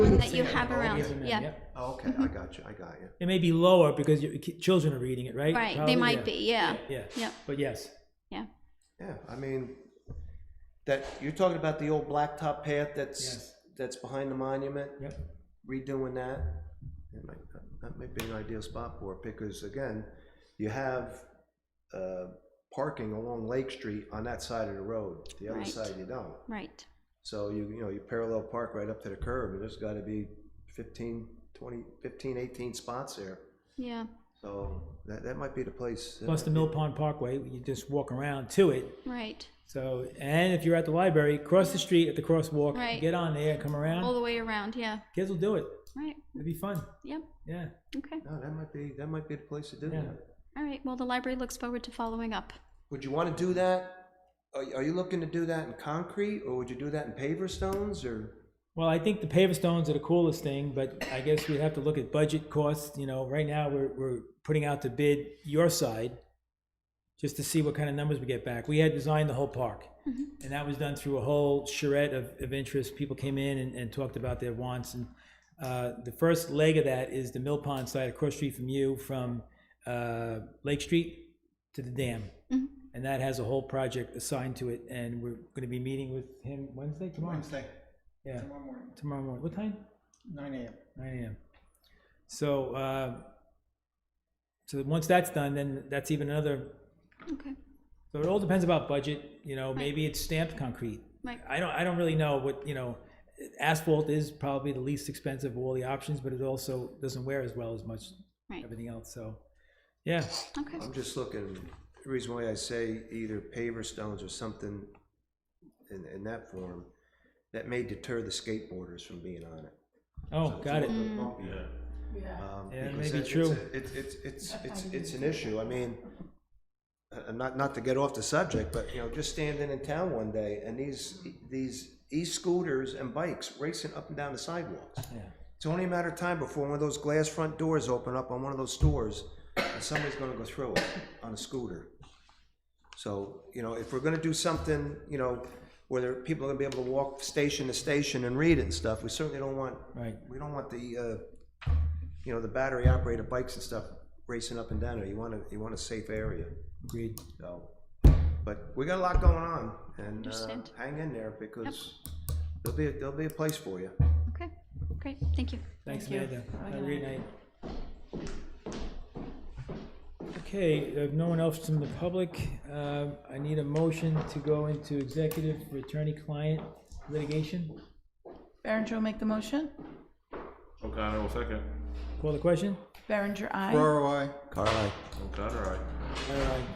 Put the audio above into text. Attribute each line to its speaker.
Speaker 1: that you
Speaker 2: thing
Speaker 1: have
Speaker 2: all
Speaker 1: around,
Speaker 2: given in,
Speaker 1: yeah.
Speaker 3: Oh, okay, I got you, I got you.
Speaker 2: It may be lower because your ki- children are reading it, right?
Speaker 1: Right,
Speaker 2: Probably,
Speaker 1: they might
Speaker 2: yeah.
Speaker 1: be, yeah,
Speaker 2: Yeah.
Speaker 1: Yep.
Speaker 2: But yes.
Speaker 1: yeah.
Speaker 3: Yeah, I mean, that, you're talking about the old blacktop path that's,
Speaker 2: Yes.
Speaker 3: that's behind the monument?
Speaker 2: Yep.
Speaker 3: redoing that, it might, that might be an ideal spot for it, because again, you have, uh, parking along Lake Street on that side of the road, the other
Speaker 1: Right.
Speaker 3: side you don't.
Speaker 1: Right,
Speaker 3: So you, you know, you parallel park right up to the curb, and there's gotta be fifteen, twenty, fifteen, eighteen spots there.
Speaker 1: yeah,
Speaker 3: So that, that might be the place. that
Speaker 2: Plus the
Speaker 3: might
Speaker 2: Mill Pond Parkway, you just walk around to it.
Speaker 1: right.
Speaker 2: So, and if you're at the library, cross the street at the crosswalk,
Speaker 1: Right.
Speaker 2: get on there, come
Speaker 1: All
Speaker 2: around.
Speaker 1: the way around, yeah,
Speaker 2: Kids will do it.
Speaker 1: right,
Speaker 2: It'll be fun.
Speaker 1: yep,
Speaker 2: Yeah.
Speaker 1: okay.
Speaker 3: be- No, that might be, that might be the place to do
Speaker 2: Yeah.
Speaker 3: that.
Speaker 1: All right, well, the library looks forward to following up.
Speaker 3: Would you wanna do that? Are, are you looking to do that in concrete, or would you do that in paver stones, or?
Speaker 2: Well, I think the paver stones are the coolest thing, but I guess we'd have to look at budget costs. You know, right now we're, we're putting out to bid your side just to see what kind of numbers we get back. We had designed the whole park. And that was done through a whole charrette of, of interest. People came in and, and talked about their wants. And uh, the first leg of that is the Mill Pond side across street from you, from uh, Lake Street to the dam. And that has a whole project assigned to it. And we're going to be meeting with him Wednesday, tomorrow?
Speaker 4: Wednesday,
Speaker 2: Yeah.
Speaker 4: tomorrow morning,
Speaker 2: tomorrow morning. What time?
Speaker 4: nine AM.
Speaker 2: Nine AM. So, uh, so once that's done, then that's even another,
Speaker 1: Okay,
Speaker 2: so it all depends about budget, you know, maybe it's stamped concrete.
Speaker 1: right,
Speaker 2: I don't, I don't really know what, you know, asphalt is probably the least expensive of all the options, but it also doesn't wear as well as much,
Speaker 1: right,
Speaker 2: everything else, so, yeah.
Speaker 1: okay,
Speaker 3: I'm just looking, the reason why I say either paver stones or something in, in that form, that may deter the skateboarders from being on it.
Speaker 2: Oh, got it.
Speaker 3: Um,
Speaker 2: Yeah, that may
Speaker 3: because
Speaker 2: be
Speaker 3: it- it's
Speaker 2: true.
Speaker 3: a- It's, it's, it's, it's, it's an issue, I mean, uh, uh, not, not to get off the subject, but, you know, just standing in town one day and these, these e-scooters and bikes racing up and down the sidewalks.
Speaker 2: Yeah.
Speaker 3: It's only a matter of time before one of those glass front doors open up on one of those stores and somebody's gonna go through it on a scooter. So, you know, if we're gonna do something, you know, where there- people are gonna be able to walk station to station and read it and stuff, we certainly don't want,
Speaker 2: Right,
Speaker 3: we don't want the, uh, you know, the battery operated bikes and stuff racing up and down there. You want a, you want a safe area,
Speaker 2: agreed.
Speaker 3: so. But we got a lot going on and, uh,
Speaker 1: Understand.
Speaker 3: hang in there because there'll be, there'll be a place for you.
Speaker 1: okay, great, thank you.
Speaker 2: Thanks,
Speaker 5: Thank
Speaker 2: Amanda.
Speaker 5: you. Have a
Speaker 2: Have a
Speaker 5: good
Speaker 2: great night. Okay, if no one else from the public, uh, I need a motion to go into executive for attorney-client litigation.
Speaker 5: Berenger will make the motion.
Speaker 6: O'Connor will second.
Speaker 2: Call the question?
Speaker 5: Berenger, aye.
Speaker 4: Ferraro, I.
Speaker 3: Carly.
Speaker 6: O'Connor, aye.
Speaker 2: All right,